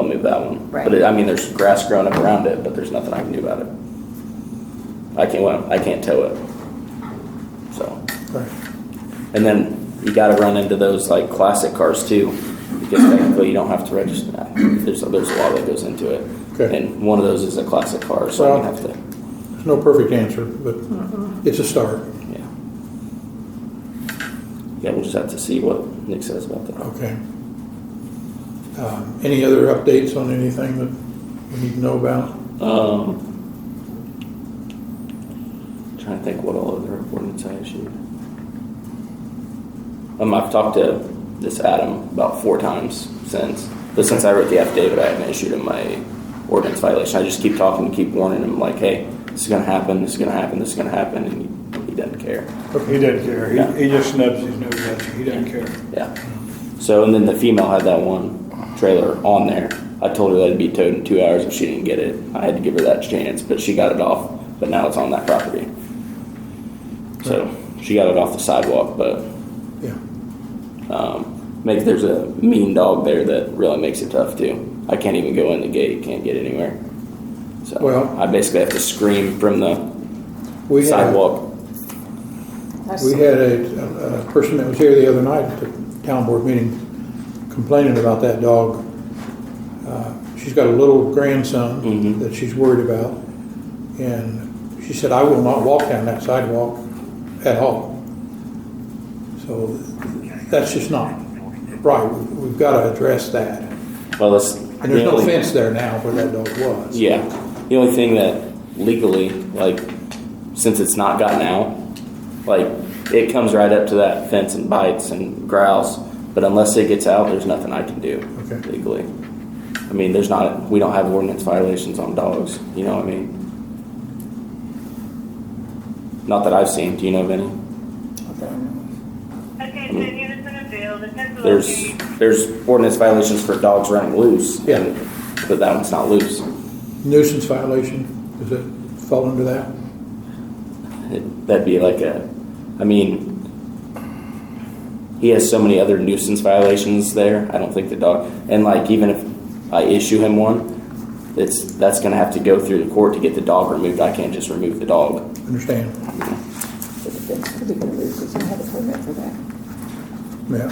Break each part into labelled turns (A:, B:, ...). A: responsibility of that one.
B: Right.
A: But it, I mean, there's grass growing up around it, but there's nothing I can do about it. I can't, well, I can't tow it. So, and then you gotta run into those like classic cars too, because technically you don't have to register that. There's, there's a lot that goes into it.
C: Okay.
A: And one of those is a classic car, so you
C: Well-
A: have to,
C: There's no perfect answer, but it's a start.
A: yeah. Yeah, we'll just have to see what Nick says about that.
C: Okay. Um, Any other updates on anything that we need to know about?
A: Um, trying to think what all other ordinance I issued. Um, I've talked to this Adam about four times since, but since I wrote the affidavit, I haven't issued him my ordinance violation. I just keep talking, keep warning him, like, hey, this is gonna happen, this is gonna happen, this is gonna happen, and he, he doesn't care.
D: He doesn't care.
A: Yeah.
D: He, he just snubs his nose at you. He doesn't care.
A: Yeah. So, and then the female had that one trailer on there. I told her that'd be towed in two hours if she didn't get it. I had to give her that chance, but she got it off. But now it's on that property. So she got it off the sidewalk, but
C: Yeah.
A: um, make there's a mean dog there that really makes it tough too. I can't even go in the gate. Can't get anywhere. So
C: Well-
A: I basically have to scream from the
C: We had-
A: sidewalk.
B: That's-
C: We had a, a person that was here the other night at the town board meeting complaining about that dog. Uh, She's got a little grandson
A: Mhm.
C: that she's worried about, and she said, I will not walk down that sidewalk at all. So that's just not right. We've got to address that.
A: Well, that's
C: And there's no fence there now where that dog was.
A: Yeah. The only thing that legally, like, since it's not gotten out, like, it comes right up to that fence and bites and growls. But unless it gets out, there's nothing I can do
C: Okay.
A: legally. I mean, there's not, we don't have ordinance violations on dogs. You know what I mean? Not that I've seen. Do you know of any?
E: Attention, units in the field, attention.
A: There's, there's ordinance violations for dogs running loose.
C: Yeah.
A: and- But that one's not loose.
C: Nuisance violation, does it fall under that?
A: It- That'd be like a, I mean, he has so many other nuisance violations there. I don't think the dog, and like even if I issue him one, it's that's gonna have to go through the court to get the dog removed. I can't just remove the dog.
C: Understand?
B: That's pretty good news, 'cause you had a permit for that.
C: Yeah.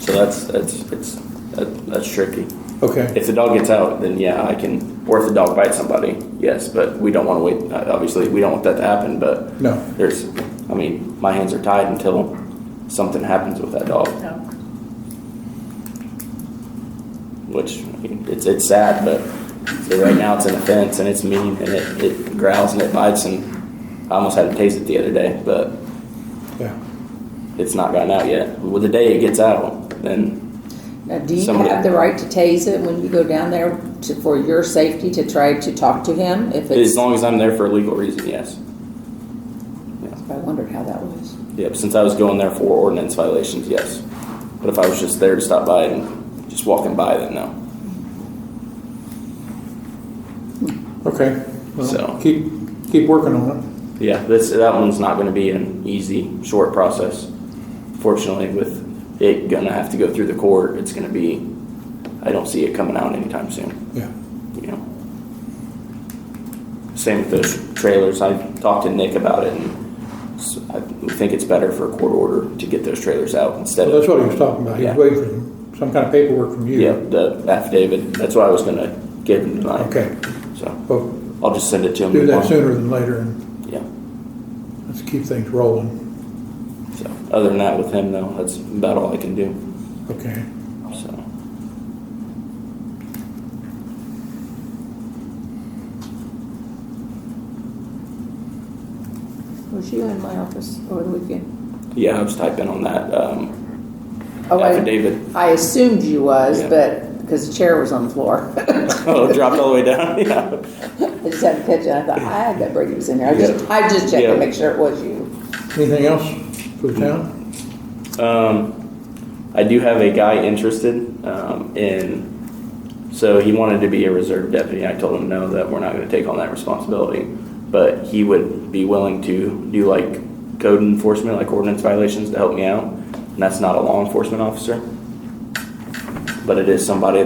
A: So that's that's it's that, that's tricky.
C: Okay.
A: If the dog gets out, then yeah, I can. Or if the dog bites somebody, yes. But we don't want to wait. uh, Obviously, we don't want that to happen. But
C: No.
A: there's, I mean, my hands are tied until something happens with that dog.
B: No.
A: which I mean, it's it's sad, but so right now it's an offense and it's mean and it, it growls and it bites and I almost had to taste it the other day, but
C: Yeah.
A: it's not gotten out yet. Well, the day it gets out, then
B: Now, do you
A: Somebody-
B: have the right to tase it when you go down there to, for your safety to try to talk to him if it's?
A: as long as I'm there for a legal reason, yes.
B: I wondered how that was.
A: Yep. Since I was going there for ordinance violations, yes. But if I was just there to stop by and just walking by, then no.
C: Okay. Well,
A: So-
C: Keep, keep working on
A: Yeah, this that one's not going to be an easy, short process. Fortunately, with it gonna have to go through the court, it's going to be. I don't see it coming out anytime soon.
C: it. Yeah.
A: You know. Same with those trailers. I talked to Nick about it, and s- I think it's better for a court order to get those trailers out instead
C: Well, that's
A: of.
C: what he was talking about. He was
A: Yeah.
C: waiting for some kind of paperwork from you.
A: Yeah, the affidavit. That's what I was going to give him tonight.
C: Okay.
A: So
C: Well,
A: I'll just send it to him.
C: do that
A: tomorrow.
C: sooner than later and
A: Yeah.
C: let's keep things rolling.
A: So other than that, with him though, that's about all I can do.
C: Okay.
A: So,
B: Was you in my office over the weekend?
A: yeah, I was typing on that um,
B: Oh, I-
A: affidavit.
B: I assumed you was,
A: Yeah.
B: but, because the chair was on the floor.
A: oh, it dropped all the way down. Yeah.
B: I just had to catch it. I thought, "Ah, I bet Brady was in there. I just,
A: Yeah.
B: I just checked
A: Yeah.
B: to make sure it was you.
C: Anything else for the town?
A: Um, I do have a guy interested um, in, so he wanted to be a reserve deputy. I told him no, that we're not going to take on that responsibility. But he would be willing to do like code enforcement, like ordinance violations to help me out. And that's not a law enforcement officer. but it is somebody